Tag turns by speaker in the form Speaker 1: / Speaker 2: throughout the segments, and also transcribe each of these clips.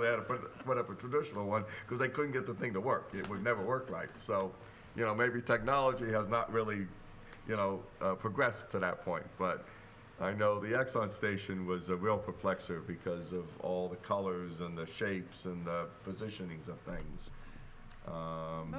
Speaker 1: They had to put, put up a traditional one because they couldn't get the thing to work. It would never work right. So, you know, maybe technology has not really, you know, uh, progressed to that point. But I know the Exxon station was a real perplexer because of all the colors and the shapes and the positionings of things. Um,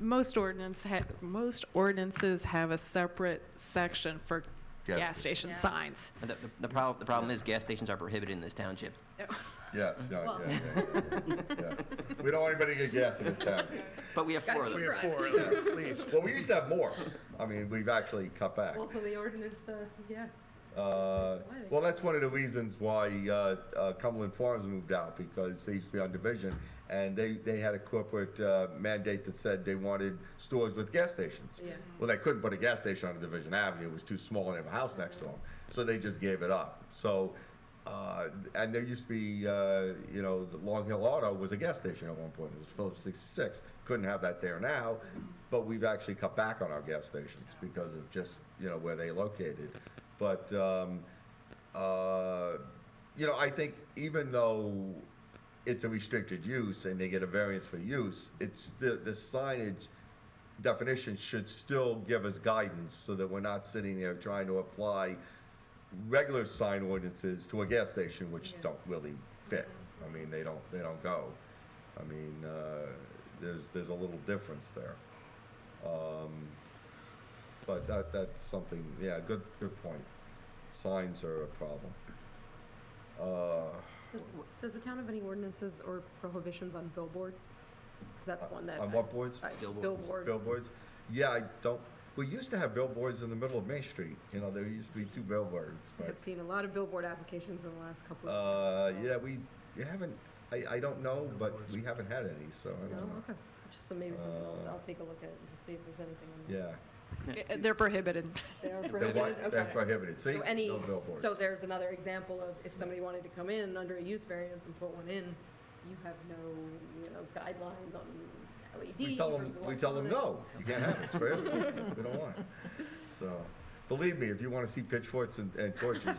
Speaker 2: Most ordinance ha- most ordinances have a separate section for
Speaker 1: Gas
Speaker 2: gas,
Speaker 1: sta-
Speaker 2: station
Speaker 3: Yeah.
Speaker 2: signs.
Speaker 4: But The, the, the problem, the problem is gas stations are prohibited in this township.
Speaker 1: yes, yeah,
Speaker 3: Well.
Speaker 1: yeah, yeah, yeah. We don't want anybody to get gas in this town.
Speaker 4: But we have four of
Speaker 3: Gotta
Speaker 4: them.
Speaker 3: keep
Speaker 5: Three or
Speaker 3: Right.
Speaker 5: four, at least.
Speaker 1: Well, we used to have more. I mean, we've actually cut back.
Speaker 3: Also, the ordinance, uh, yeah.
Speaker 1: Uh, Well, that's one of the reasons why uh, uh, Cumberland Farms moved out, because they used to be on Division, and they, they had a corporate uh, mandate that said they wanted stores with gas stations.
Speaker 3: Yeah.
Speaker 1: Well, they couldn't put a gas station on Division Avenue, it was too small, and they have a house next to them, so they just gave it up. So, uh, and there used to be, uh, you know, the Long Hill Auto was a gas station at one point, it was Phillips 66. Couldn't have that there now, but we've actually cut back on our gas stations because of just, you know, where they located. But, um, uh, you know, I think even though it's a restricted use and they get a variance for use, it's the, the signage definition should still give us guidance so that we're not sitting there trying to apply regular sign ordinances to a gas station, which don't really fit. I mean, they don't, they don't go. I mean, uh, there's, there's a little difference there. Um, But that, that's something, yeah, good, good point. Signs are a problem. Uh,
Speaker 3: Does, does the town have any ordinances or prohibitions on billboards? 'Cause that's one that.
Speaker 1: On what boards?
Speaker 3: I-
Speaker 4: Billboards.
Speaker 3: Billboards.
Speaker 1: Billboards? Yeah, I don't, we used to have billboards in the middle of Main Street, you know, there used to be two billboards,
Speaker 3: I have
Speaker 1: but,
Speaker 3: seen a lot of billboard applications in the last couple
Speaker 1: uh,
Speaker 3: of years.
Speaker 1: yeah, we, you haven't, I, I don't know, but we haven't had any, so I
Speaker 3: No,
Speaker 1: don't know.
Speaker 3: okay. Just so maybe something else.
Speaker 1: Uh,
Speaker 3: I'll take a look at it and see if there's anything. on there.
Speaker 1: Yeah.
Speaker 2: Uh, They're prohibited.
Speaker 3: They are
Speaker 1: They're
Speaker 3: prohibited,
Speaker 1: wi-
Speaker 3: okay.
Speaker 1: They're prohibited, see?
Speaker 3: So any,
Speaker 1: No billboards.
Speaker 3: so there's another example of if somebody wanted to come in under a use variance and put one in, you have no, you know, guidelines on E
Speaker 1: We
Speaker 3: LED
Speaker 1: tell
Speaker 3: versus
Speaker 1: them, we tell them, no,
Speaker 3: electronic.
Speaker 1: you can't have it, it's for everyone, we don't want it. So, believe me, if you wanna see pitchforks and, and torches,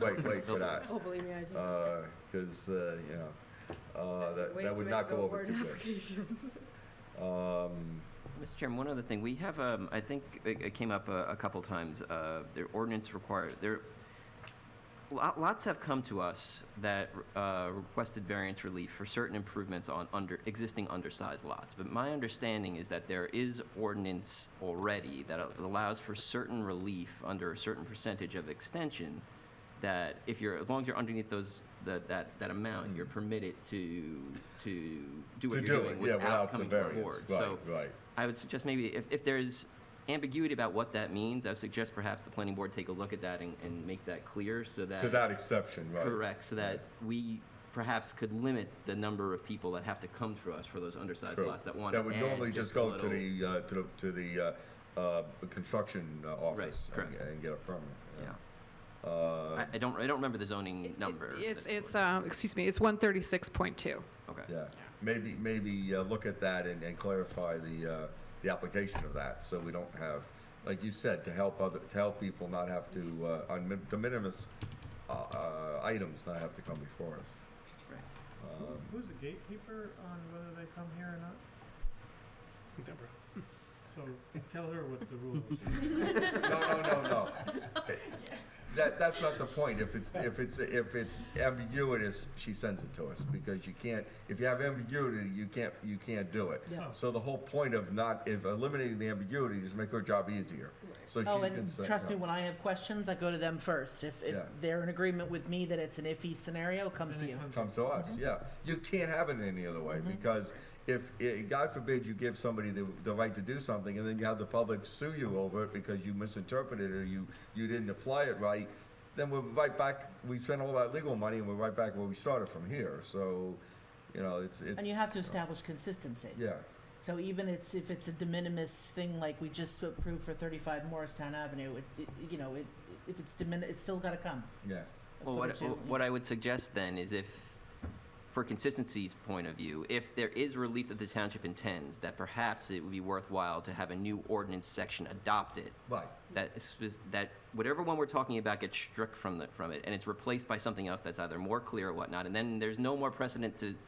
Speaker 1: wait, wait for that.
Speaker 3: Oh, believe me, I
Speaker 1: Uh,
Speaker 3: do.
Speaker 1: because, uh, you know, uh, that,
Speaker 3: Way
Speaker 1: that
Speaker 3: too
Speaker 1: would
Speaker 3: many
Speaker 1: not go over
Speaker 3: billboard
Speaker 1: too good.
Speaker 3: applications.
Speaker 1: Um,
Speaker 4: Mr. Chairman, one other thing, we have, um, I think it, it came up a, a couple times, uh, their ordinance require, there, lo- lots have come to us that, uh, requested variance relief for certain improvements on under, existing undersized lots. But my understanding is that there is ordinance already that allows for certain relief under a certain percentage of extension that if you're, as long as you're underneath those, that, that, that amount, you're permitted to, to
Speaker 1: Mm. to do
Speaker 4: do what you're
Speaker 1: it,
Speaker 4: doing
Speaker 1: yeah, without
Speaker 4: without
Speaker 1: the
Speaker 4: coming to our board.
Speaker 1: variance, right,
Speaker 4: So
Speaker 1: right.
Speaker 4: I would suggest maybe if, if there's ambiguity about what that means, I would suggest perhaps the planning board take a look at that and, and make that clear so that.
Speaker 1: To that exception, right.
Speaker 4: Correct, so that we perhaps could limit the number of people that have to come through us for those undersized
Speaker 1: True.
Speaker 4: lots that want to
Speaker 1: That would normally
Speaker 4: add
Speaker 1: just
Speaker 4: just a
Speaker 1: go to
Speaker 4: little.
Speaker 1: the, uh, to the, to the, uh, uh, construction uh, office and-
Speaker 4: correct.
Speaker 1: and get a permit.
Speaker 4: Yeah.
Speaker 1: Uh,
Speaker 4: I, I don't, I don't remember the zoning
Speaker 2: It-
Speaker 4: number.
Speaker 2: It's,
Speaker 4: that-
Speaker 2: it's, uh, excuse me, it's 136.2.
Speaker 4: Okay.
Speaker 1: yeah, maybe, maybe uh, look at that and, and clarify the, uh, the application of that, so we don't have, like you said, to help other, to help people not have to, uh, on min- de minimis, uh, uh, items not have to come before us. Um,
Speaker 6: Uh, Who's the gatekeeper on whether they come here or not?
Speaker 5: Deborah.
Speaker 6: So tell her what the rule is.
Speaker 1: No, no, no, Um, oh, no. That, that's not the point. If it's, if it's, if it's ambiguous, she sends it to us, because you can't, if you have ambiguity, you can't, you can't do it.
Speaker 3: Yeah.
Speaker 1: So the whole point of not, if eliminating the ambiguity is make her job easier. So she
Speaker 7: Oh,
Speaker 1: can
Speaker 7: and
Speaker 1: say.
Speaker 7: trust me,
Speaker 1: no.
Speaker 7: when I have questions, I go to them first. If, if
Speaker 1: Yeah.
Speaker 7: they're in agreement with me that it's an iffy scenario, it comes
Speaker 6: Then
Speaker 7: to
Speaker 6: it
Speaker 7: you.
Speaker 6: comes-
Speaker 1: Comes to us,
Speaker 7: Mm-hmm.
Speaker 1: yeah. You can't have it any other way, because if, i- God forbid, you give somebody the, the right to do something, and then you have the public sue you over it because you misinterpreted it, or you, you didn't apply it right, then we're right back, we spent all that legal money, and we're right back where we started from here, so, you know, it's, it's.
Speaker 7: And you have to establish consistency.
Speaker 1: Yeah,
Speaker 7: So even it's, if it's a de minimis thing, like we just approved for thirty-five Morristown Avenue, it, it, you know, it, if it's de minimis, it's still gotta come.
Speaker 1: yeah,
Speaker 4: Well,
Speaker 7: for
Speaker 4: what,
Speaker 7: you-
Speaker 4: what I would suggest then is if, for consistency's point of view, if there is relief that the township intends, that perhaps it would be worthwhile to have a new ordinance section adopted.
Speaker 1: right,
Speaker 4: That, is- that whatever one we're talking about gets struck from the, from it, and it's replaced by something else that's either more clear or whatnot, and then there's no more precedent to,